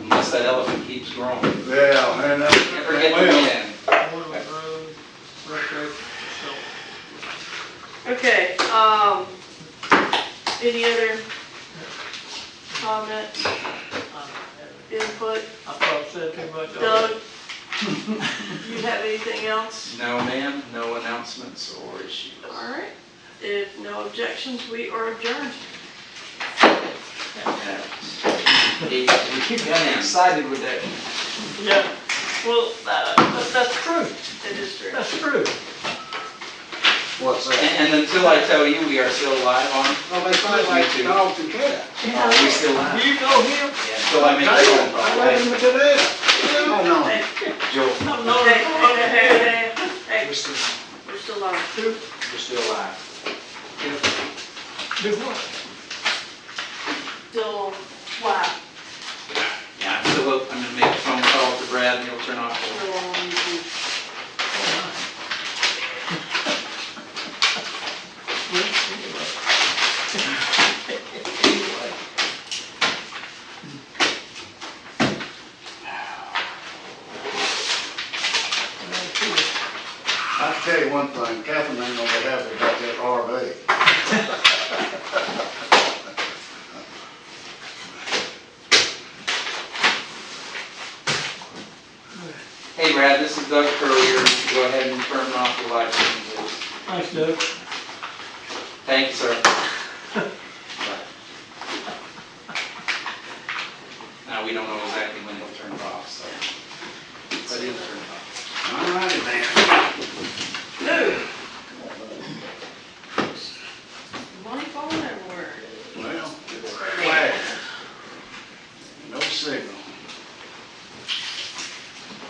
Unless that elephant keeps growing. Can't Yeah, man, that's. forget the man. Boylan Road, recreation facility. Okay, um, any other comment, I'm- input? I um, probably said too much. Doug? You have anything else? No, ma'am, no announcements or issues. All right, if no objections, we are adjourned. Eight, we keep getting excited with that. Yeah, well, uh, but that's true, It is true. that's true. What's that? And and until I tell you, we are still alive on, Well, they fight like dogs and cats. are we still alive? You know him? Yeah, Until I make a phone call. I let them to death. Oh, no. Hey, Joel, I'm hey, not. hey, hey, hey, hey, We're still, we're still on. we're still alive. Do what? Still, wow, Yeah, I'm still, up. I'm gonna make a phone call to Brad and he'll turn off the still on YouTube. Well, anyway. Anyway. Well, sure. I tell you one thing, Catherine ain't gonna be happy about that RV. Hey Brad, this is Doug Currier. Go ahead and turn off the lights. Thanks, Doug. Thank you, sir. Now, we don't know exactly when it'll turn off, so. But it'll turn off. All righty then. No. Money falling everywhere. Well, it's flag. No signal.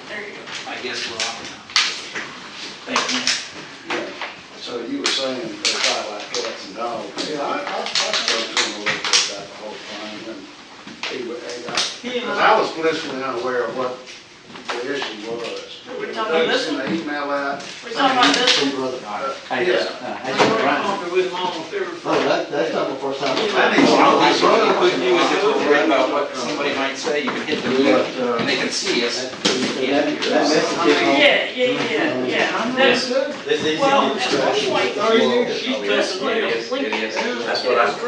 There you go. I guess we're off now. Thank you. Yeah. So you were saying they fight like cats and dogs. Yeah, I, I, I spoke to him a little bit about the whole thing and he, wa- he got He and Because I, I was blissfully unaware of what the issue was. We're talking about this one? They sent an email out. We're talking about this one? uh, I just, Yeah. uh, I I just don't run. remember with him almost every Oh, Friday. that, that's not the first time. I need Well, some- I struggle with you is if we're worried about what somebody might say, you can hit the button and they can see us. That- That that message is on. Yeah, yeah, yeah, yeah. That's- Well, at one point, Oh, Thirty years. she's just, It is, it is. That's what I-